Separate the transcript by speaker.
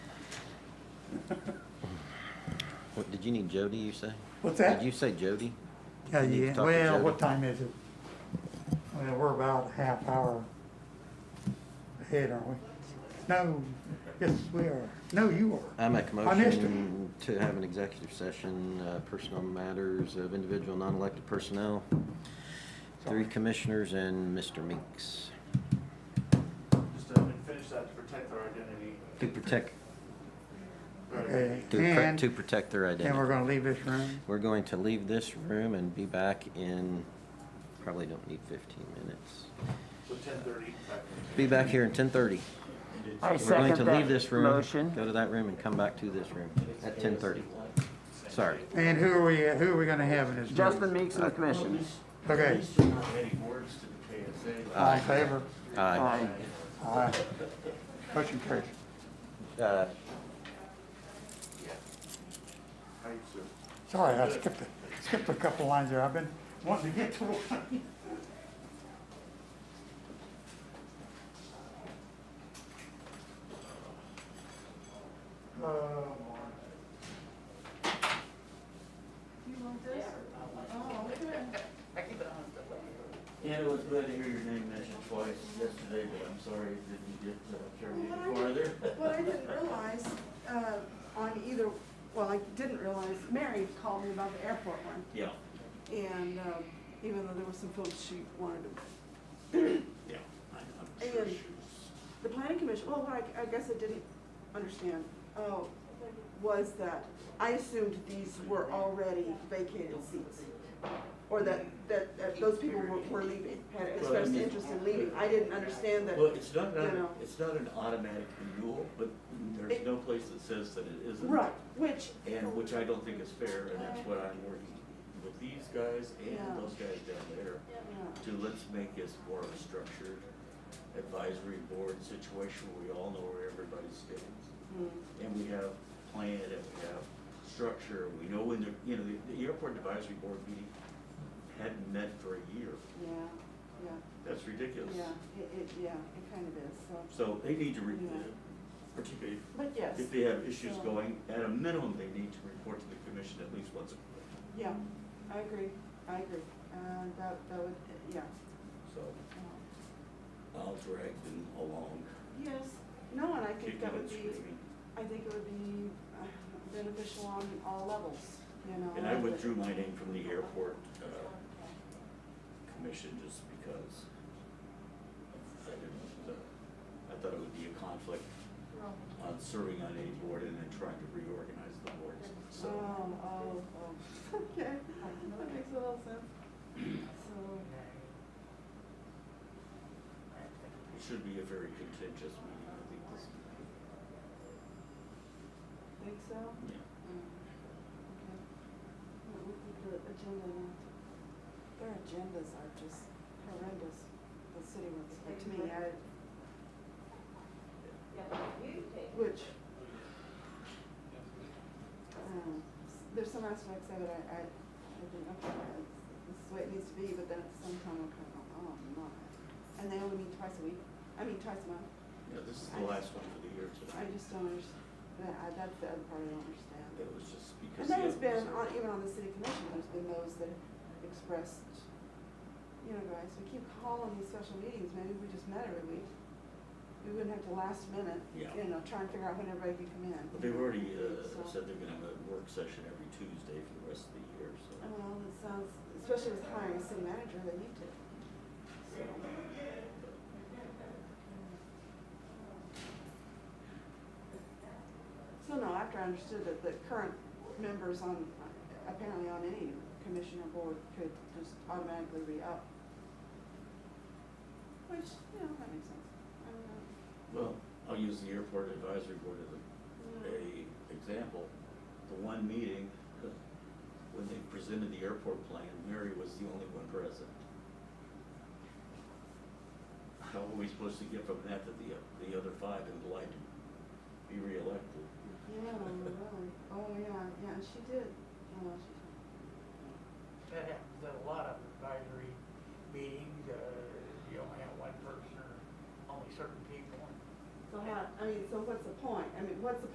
Speaker 1: What, did you need Jody, you say?
Speaker 2: What's
Speaker 1: Did
Speaker 2: that?
Speaker 1: you say Jody?
Speaker 2: Yeah,
Speaker 1: you need to
Speaker 2: yeah,
Speaker 1: talk to
Speaker 2: well,
Speaker 1: Jody.
Speaker 2: what time is it? Well, we're about a half hour ahead, aren't we? No, yes, we are. No, you are.
Speaker 1: I make a
Speaker 2: I missed it.
Speaker 1: motion to have an executive session, uh, personal matters of individual non-elected personnel. Three
Speaker 2: Sorry.
Speaker 1: commissioners and Mr. Meeks
Speaker 3: Just to finish that, to protect our identity.
Speaker 1: to protect,
Speaker 3: Our
Speaker 2: Okay,
Speaker 3: identity.
Speaker 1: to, pr- to
Speaker 2: and,
Speaker 1: protect their
Speaker 2: and we're
Speaker 1: identity.
Speaker 2: gonna leave this room.
Speaker 1: We're going to leave this room and be back in, probably don't need fifteen minutes.
Speaker 3: So ten thirty, back.
Speaker 1: Be back here in ten thirty.
Speaker 4: I
Speaker 1: We're going to
Speaker 4: second
Speaker 1: leave
Speaker 4: that
Speaker 1: this room,
Speaker 4: motion.
Speaker 1: go to that room and come back to this room at ten thirty. Sorry.
Speaker 2: And who are we, who are we gonna have in this room?
Speaker 4: Justin Meeks and the commission.
Speaker 2: Okay. All in favor?
Speaker 1: Aye.
Speaker 4: Aye.
Speaker 2: Aye. Motion carries.
Speaker 1: Uh,
Speaker 3: Thank you, sir.
Speaker 2: Sorry, I skipped, a- skipped a couple lines there. I've been wanting to get to one. Oh, Lord.
Speaker 5: Yeah, it was glad to hear your name mentioned twice yesterday, but I'm sorry it didn't get uh, carried farther.
Speaker 6: What I didn't realize, uh, on either, well, I didn't realize, Mary called me about the airport one.
Speaker 5: Yeah,
Speaker 6: And, um, even though there was some folks she wanted to,
Speaker 5: yeah. I- I'm
Speaker 6: And-
Speaker 5: sure she was-
Speaker 6: the planning commission, well, what I, I guess I didn't understand, oh, was that I assumed these were already vacated seats. Or that, that, that those people were, were leaving, had expressed interest in leaving. I didn't understand that.
Speaker 5: Well, it's not,
Speaker 6: you
Speaker 5: an-
Speaker 6: know.
Speaker 5: it's not an automatic renewal, but there's
Speaker 6: It-
Speaker 5: no place that says that it isn't.
Speaker 6: Right, which,
Speaker 5: And, which I don't think is fair, and that's what I'm working with these guys
Speaker 6: Yeah.
Speaker 5: and those guys down there
Speaker 6: yeah.
Speaker 5: to let's make this more of a structured advisory board situation where we all know where everybody stands.
Speaker 6: Mm.
Speaker 5: and we have plan, and we have structure, we know when the, you know, the, the airport advisory board meeting hadn't met for a year,
Speaker 6: Yeah,
Speaker 5: that's
Speaker 6: yeah,
Speaker 5: ridiculous.
Speaker 6: yeah, it, it, yeah, it kind of is, so,
Speaker 5: So they need to, re-
Speaker 6: Yeah.
Speaker 5: particularly
Speaker 6: but yes,
Speaker 5: if they have issues
Speaker 6: Yeah.
Speaker 5: going, at a minimum, they need to report to the commission at least once a quarter,
Speaker 6: yeah, I agree, I agree, uh, that, that would, yeah.
Speaker 5: so
Speaker 6: uh,
Speaker 5: I'll drag them along,
Speaker 6: Yes, no, and I
Speaker 5: kicking
Speaker 6: think that
Speaker 5: and
Speaker 6: would be,
Speaker 5: screaming.
Speaker 6: I think it would be uh, beneficial on all levels, you know.
Speaker 5: And I
Speaker 6: that-
Speaker 5: withdrew my name from the airport, uh, commission just because I didn't, uh, I thought it would be a conflict on serving on a board and then trying to reorganize the boards,
Speaker 6: Oh,
Speaker 5: so.
Speaker 6: oh, oh, okay, that makes a lot of sense, so,
Speaker 5: It should be a very contentious meeting, I think this,
Speaker 6: think so?
Speaker 5: yeah.
Speaker 6: Mm, Okay. What would be the agenda now? Their agendas are just horrendous, the city ones, but to me, I. Which. um, s- There's some aspects of it I, I, I think, okay, that's- this is the way it needs to be, but then at some time I'm kind of, oh, my. And they only meet twice a week, I mean, twice a month,
Speaker 5: Yeah, this is the last one for the year
Speaker 6: I
Speaker 5: tonight.
Speaker 6: just don't understand, that's the other part I don't understand.
Speaker 5: That was just because.
Speaker 6: And there has
Speaker 5: the others
Speaker 6: been, on, even on the city commission, there's been those that have expressed, you know, guys, we keep calling these special meetings, maybe we just met every week. We wouldn't have to last minute, you
Speaker 5: Yeah.
Speaker 6: know, try and figure out when everybody could come in.
Speaker 5: But they've already, uh,
Speaker 6: So-
Speaker 5: said they're gonna have a work session every Tuesday for the rest of the year, so.
Speaker 6: Well, that sounds, especially with hiring a city manager, they need to. So, So no, after I understood that the current members on, apparently on any commission or board could just automatically re-up. Which, you know, that makes sense. I don't know.
Speaker 5: Well, I'll use the airport advisory board as a a example, the one meeting, uh, when they presented the airport plan, Mary was the only one present. How are we supposed to get from that to the, the other five implied to be reelected?
Speaker 6: Oh,